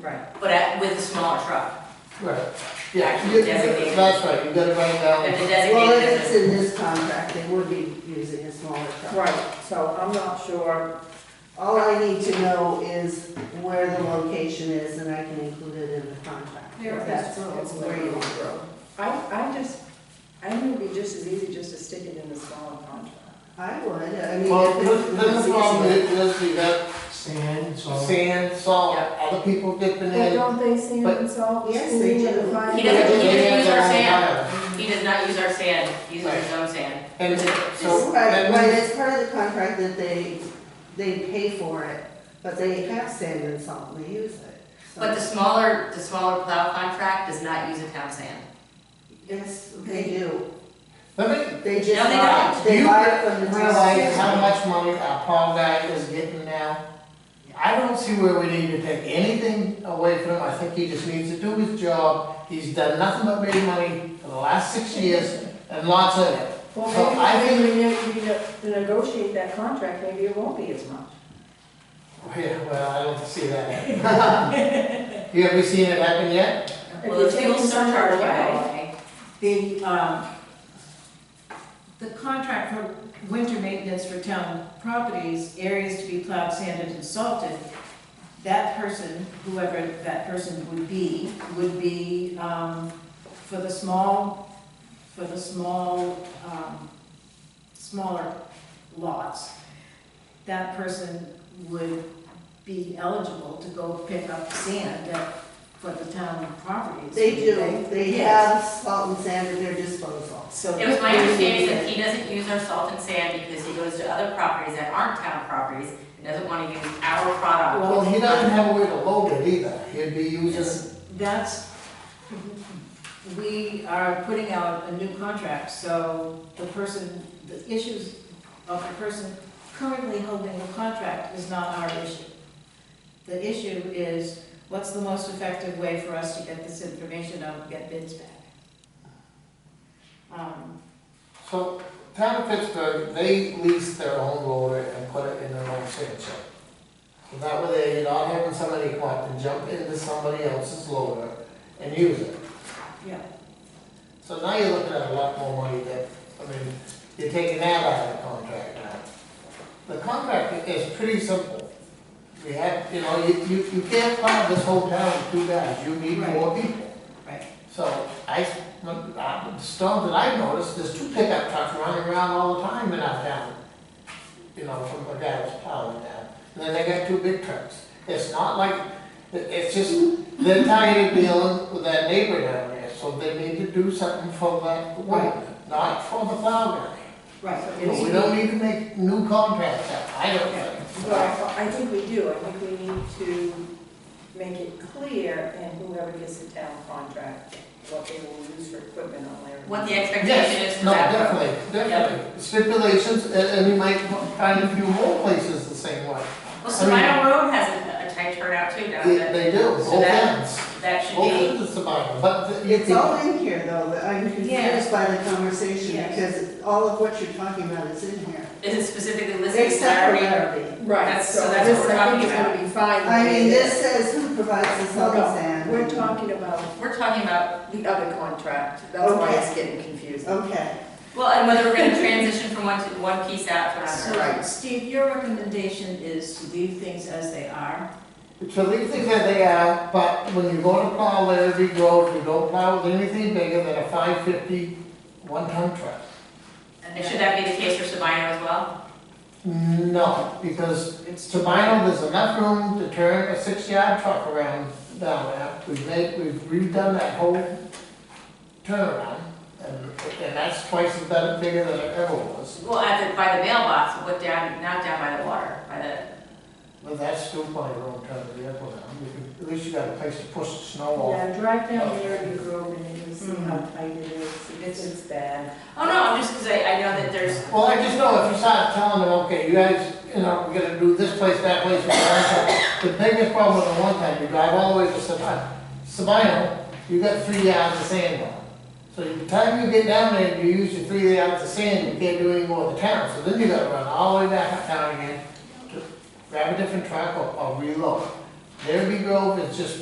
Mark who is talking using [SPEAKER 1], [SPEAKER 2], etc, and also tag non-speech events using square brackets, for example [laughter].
[SPEAKER 1] Right,
[SPEAKER 2] but at, with a smaller truck.
[SPEAKER 3] Right, yeah, you-
[SPEAKER 2] Designated.
[SPEAKER 3] that's right, you gotta write down.
[SPEAKER 2] Have to
[SPEAKER 4] Well,
[SPEAKER 2] designate
[SPEAKER 4] if it's
[SPEAKER 2] it
[SPEAKER 4] in this contract, they would be using a smaller truck.
[SPEAKER 1] right, so I'm not sure,
[SPEAKER 4] All I need to know is where the location is, and I can include it in the contract.
[SPEAKER 1] There it is.
[SPEAKER 4] That's
[SPEAKER 1] It's
[SPEAKER 4] where you want to go.
[SPEAKER 1] I, I just, I think it'd be just as easy just to stick it in the smaller contract.
[SPEAKER 4] I would, I mean.
[SPEAKER 3] Well,
[SPEAKER 4] if
[SPEAKER 3] this,
[SPEAKER 4] it-
[SPEAKER 3] this is problem,
[SPEAKER 4] it's-
[SPEAKER 3] is, is you got
[SPEAKER 5] Sand, salt.
[SPEAKER 3] sand, salt,
[SPEAKER 2] Yeah.
[SPEAKER 3] other people dipping
[SPEAKER 6] But
[SPEAKER 3] in.
[SPEAKER 6] don't they sand
[SPEAKER 3] But-
[SPEAKER 6] and salt? the
[SPEAKER 4] Yes,
[SPEAKER 6] school
[SPEAKER 4] they
[SPEAKER 6] and
[SPEAKER 4] do.
[SPEAKER 6] the fire?
[SPEAKER 2] He doesn't- he doesn't use our
[SPEAKER 3] Yeah.
[SPEAKER 2] sand. He does not use our sand, he uses his own sand.
[SPEAKER 3] And so,
[SPEAKER 4] Right,
[SPEAKER 3] that
[SPEAKER 4] but
[SPEAKER 3] means,
[SPEAKER 4] it's part of the contract that they, they pay for it, but they have sand and salt, and they use it. so-
[SPEAKER 2] But the smaller, the smaller plow contract does not use a town sand.
[SPEAKER 4] Yes, they do.
[SPEAKER 3] let me,
[SPEAKER 4] They just
[SPEAKER 2] No, they
[SPEAKER 4] buy,
[SPEAKER 2] don't.
[SPEAKER 3] do
[SPEAKER 4] they
[SPEAKER 3] you
[SPEAKER 4] buy it from the town.
[SPEAKER 3] realize how much money our pond guy is getting now? I don't see where we need to take anything away from him, I think he just needs to do his job, he's done nothing but made money for the last six years, and lots of it.
[SPEAKER 1] Well,
[SPEAKER 3] So I
[SPEAKER 1] maybe, maybe we ne- we ne- to negotiate that contract, maybe it won't be as much.
[SPEAKER 3] Yeah, well, I don't see that. [laughs] You ever seen it happen yet?
[SPEAKER 2] Well, the
[SPEAKER 1] If you
[SPEAKER 2] fuel
[SPEAKER 1] take the sand
[SPEAKER 2] surcharge went
[SPEAKER 1] away.
[SPEAKER 2] away.
[SPEAKER 7] The, um, the contract for winter maintenance for town properties, areas to be plowed, sanded, and salted, that person, whoever that person would be, would be, um, for the small, for the small, um, smaller lots, that person would be eligible to go pick up sand at- for the town properties.
[SPEAKER 4] They do, they
[SPEAKER 7] Yes.
[SPEAKER 4] have salt and sand at their disposal.
[SPEAKER 7] So
[SPEAKER 2] It was my understanding that he doesn't use our salt and sand because he goes to other properties that aren't town properties and doesn't want to use our product.
[SPEAKER 3] Well, he doesn't have a way to load it either, he'd be using,
[SPEAKER 7] That's, we are putting out a new contract, so the person, the issues of the person currently holding the contract is not our issue. The issue is, what's the most effective way for us to get this information out, get bids back? Um,
[SPEAKER 3] so, town of Pittsburgh, they lease their own loader and put it in their own sand shed. So that way they're not having somebody come up and jump into somebody else's loader and use it.
[SPEAKER 7] Yeah.
[SPEAKER 3] So now you're looking at a lot more money that, I mean, you're taking that out of the contract now. The contract is pretty simple. We have, you know, you, you, you can't plow this whole town with two guys, you need
[SPEAKER 7] Right.
[SPEAKER 3] more people.
[SPEAKER 7] Right.
[SPEAKER 3] So I, when- uh, the storm that I noticed, there's two pickup trucks running around all the time in our town. You know, from a guy that's plowing down, and then they got two big trucks. It's not like, it- it's just, they're tired of dealing with that neighbor down there, so they need to do something for that woman, not for the plow guy.
[SPEAKER 7] Right.
[SPEAKER 3] You know, we don't need to make new contracts up, I don't think.
[SPEAKER 1] Well, I think we do, I think we need to make it clear in whoever gets the town contract, what they will use for equipment on their.
[SPEAKER 2] What the expectation is
[SPEAKER 3] Yes,
[SPEAKER 2] for
[SPEAKER 3] no,
[SPEAKER 2] that.
[SPEAKER 3] definitely, definitely. Stipulations, and, and you might find a few more places the same way.
[SPEAKER 2] Well, Sabino Road has a a tight turnout too down
[SPEAKER 3] They,
[SPEAKER 2] there.
[SPEAKER 3] they do,
[SPEAKER 2] So
[SPEAKER 3] both
[SPEAKER 2] that-
[SPEAKER 3] ends,
[SPEAKER 2] That should
[SPEAKER 3] both
[SPEAKER 2] be,
[SPEAKER 3] ends of Sabino, but the- you
[SPEAKER 4] It's all
[SPEAKER 3] can,
[SPEAKER 4] in here, though, that I'm
[SPEAKER 7] Yeah.
[SPEAKER 4] confused by the conversation,
[SPEAKER 7] Yes.
[SPEAKER 4] because all of what you're talking about is in here.
[SPEAKER 2] is it specifically listed as
[SPEAKER 4] Except for
[SPEAKER 2] priority?
[SPEAKER 4] Larrabee.
[SPEAKER 1] Right,
[SPEAKER 2] That's-
[SPEAKER 1] so
[SPEAKER 2] so that's what
[SPEAKER 1] this,
[SPEAKER 2] we're
[SPEAKER 1] I think
[SPEAKER 2] talking
[SPEAKER 1] is gonna be fine.
[SPEAKER 4] I mean, this says who provides the
[SPEAKER 1] No,
[SPEAKER 4] salt and
[SPEAKER 1] no,
[SPEAKER 4] sand.
[SPEAKER 1] we're talking about
[SPEAKER 2] We're talking about,
[SPEAKER 1] the other contract, that's why it's getting confusing.
[SPEAKER 4] Okay,
[SPEAKER 2] well, and whether we're gonna transition from one to, one piece out to another.
[SPEAKER 7] So, Steve, your recommendation is to leave things as they are?
[SPEAKER 3] to leave things as they are, but when you go to plow Larrabee Road, you don't plow with anything bigger than a five fifty, one ton truck.
[SPEAKER 2] And should that be the case for Sabino as well?
[SPEAKER 3] No, because
[SPEAKER 7] It's
[SPEAKER 3] Sabino, there's enough room to turn a six yard truck around down there. We've made, we've redone that whole turnaround, and, and that's twice as better, bigger than it ever was.
[SPEAKER 2] Well, at the, by the mailbox, what down, not down by the water, by the,
[SPEAKER 3] But that's still plenty of room to turn the vehicle down, You can- at least you got a place to push the snow off.
[SPEAKER 1] Yeah, drive down the Irving Grove and you'll see how
[SPEAKER 7] Mm-hmm.
[SPEAKER 1] tight it is, it's, it's bad.
[SPEAKER 2] oh no, I'm just, cause I, I know that there's,
[SPEAKER 3] Well, I just know if you start telling them, okay, you guys, you know, we're gonna do this place, that place, and that place, the biggest problem with the one time, you drive all the way to Sabino, Sabino, you got three yards of sand on. So by the time you get down there, and you use your three yards of sand, you can't do any more of the town, so then you gotta run all the way back up town again, to grab a different truck or, or reload. Derby Grove is just